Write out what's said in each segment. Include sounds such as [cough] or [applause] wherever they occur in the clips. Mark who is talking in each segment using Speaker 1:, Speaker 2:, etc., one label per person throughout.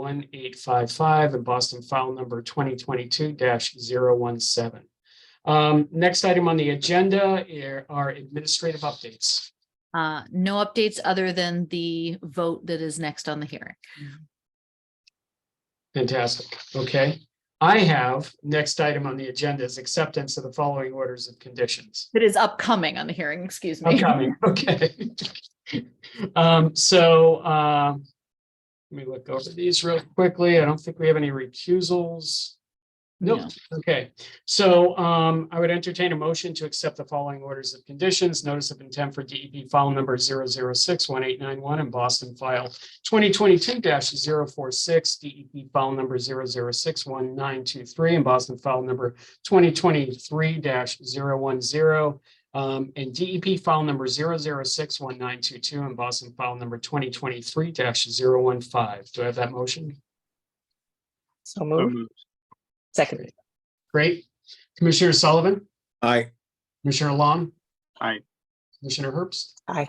Speaker 1: 006-1855 and Boston file number 2022-017. Um, Next item on the agenda are- are administrative updates.
Speaker 2: Uh, no updates other than the vote that is next on the hearing.
Speaker 1: Fantastic. Okay. I have, next item on the agenda is acceptance of the following orders of conditions.
Speaker 2: That is upcoming on the hearing, excuse
Speaker 1: I'm
Speaker 2: me. [laughs]
Speaker 1: coming, okay. Um, so, um, let me look over these real quickly. I don't think we have any recusals.
Speaker 2: No.
Speaker 1: Nope, okay. So, um, I would entertain a motion to accept the following orders of conditions. Notice of intent for DEP file number 006-1891 and Boston file twenty twenty-two 46 DEP E file number 006-1923 and Boston file number twenty twenty-three 10 um, and DEP file number 006192 and Boston file number twenty twenty-three 15 Do I have that motion?
Speaker 3: So
Speaker 4: So
Speaker 3: moved.
Speaker 4: moved.
Speaker 3: Second.
Speaker 1: Great. Commissioner Sullivan,
Speaker 5: Aye,
Speaker 1: Commissioner Long,
Speaker 4: Aye.
Speaker 1: Commissioner Herbst.
Speaker 3: Aye.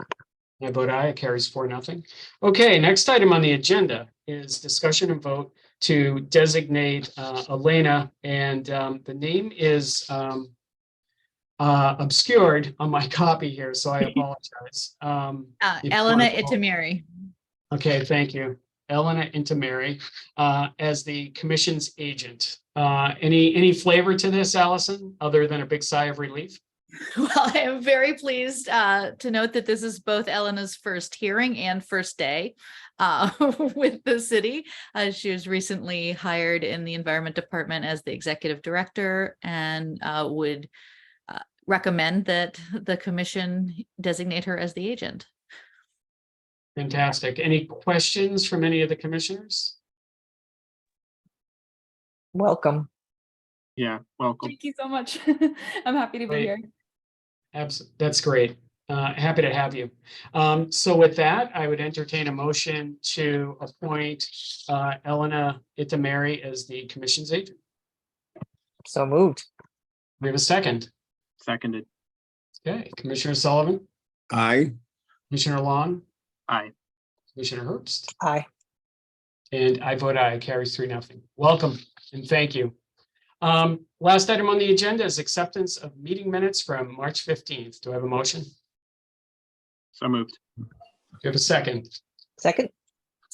Speaker 1: I vote aye, it carries four, nothing. Okay, next item on the agenda is discussion and vote to designate uh, Elena, and um, the name is um, uh, obscured on my [laughs] copy here, so I apologize. Um,
Speaker 2: Uh,
Speaker 1: If
Speaker 2: Elena
Speaker 1: possible.
Speaker 2: Itamiri.
Speaker 1: Okay, thank you. Elena Intimeri, uh, as the commission's agent. Uh, any, any flavor to this, Allison, other than a big sigh of relief?
Speaker 2: [laughs] Well, I am very pleased uh, to note that this is both Elena's first hearing and first day uh, [laughs] with the city. Uh, She was recently hired in the Environment Department as the Executive Director and uh, would uh, recommend that the commission designate her as the agent.
Speaker 1: Fantastic. Any questions from any of the commissioners?
Speaker 3: Welcome.
Speaker 4: Yeah, welcome.
Speaker 6: Thank you so much. [laughs] I'm happy to be
Speaker 1: Great.
Speaker 6: here.
Speaker 1: Absolutely, that's great. Uh, happy to have you. Um, so with that, I would entertain a motion to appoint uh, Elena Intimeri as the commission's agent.
Speaker 3: So moved.
Speaker 1: We have a second.
Speaker 4: Seconded.
Speaker 1: Okay, Commissioner Sullivan,
Speaker 5: aye,
Speaker 1: Commissioner Long,
Speaker 4: Aye.
Speaker 1: Commissioner Herbst.
Speaker 3: Aye.
Speaker 1: And I vote aye, It carries three, nothing. Welcome and thank you. Um, last item on the agenda is acceptance of meeting minutes from March fifteenth. Do I have a motion? Do
Speaker 4: So moved.
Speaker 1: I have a second?
Speaker 3: Second.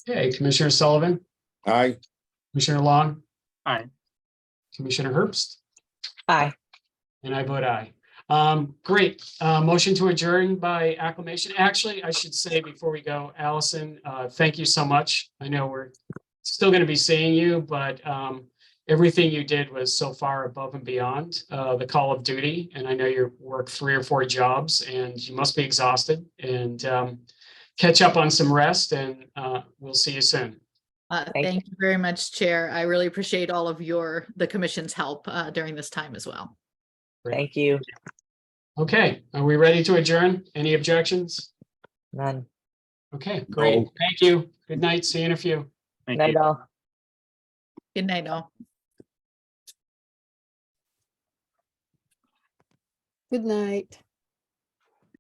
Speaker 1: Okay, Commissioner Sullivan,
Speaker 5: aye.
Speaker 1: Commissioner Long.
Speaker 4: Aye.
Speaker 1: Commissioner Herbst,
Speaker 3: Aye.
Speaker 1: and I vote aye. Um, great, uh, motion to adjourn by acclamation. Actually, I should say before we go, Allison, uh, thank you so much. I know we're still gonna be seeing you, but, um, everything you did was so far above and beyond, uh, the call of duty. And I know you work three or four jobs and you must be exhausted and, um, catch up on some rest and, uh, we'll see you soon.
Speaker 2: Uh,
Speaker 3: Thank you.
Speaker 2: Thank you very much, Chair. I really appreciate all of your, the commission's help uh, during this time as well.
Speaker 3: Thank you.
Speaker 1: Okay, are we ready to adjourn? Any objections?
Speaker 3: None.
Speaker 1: Okay, great.
Speaker 5: No.
Speaker 1: Thank you. Good night. See you in a few.
Speaker 4: Thank
Speaker 3: Night
Speaker 4: you.
Speaker 3: all.
Speaker 2: Good night, all.
Speaker 7: Good night.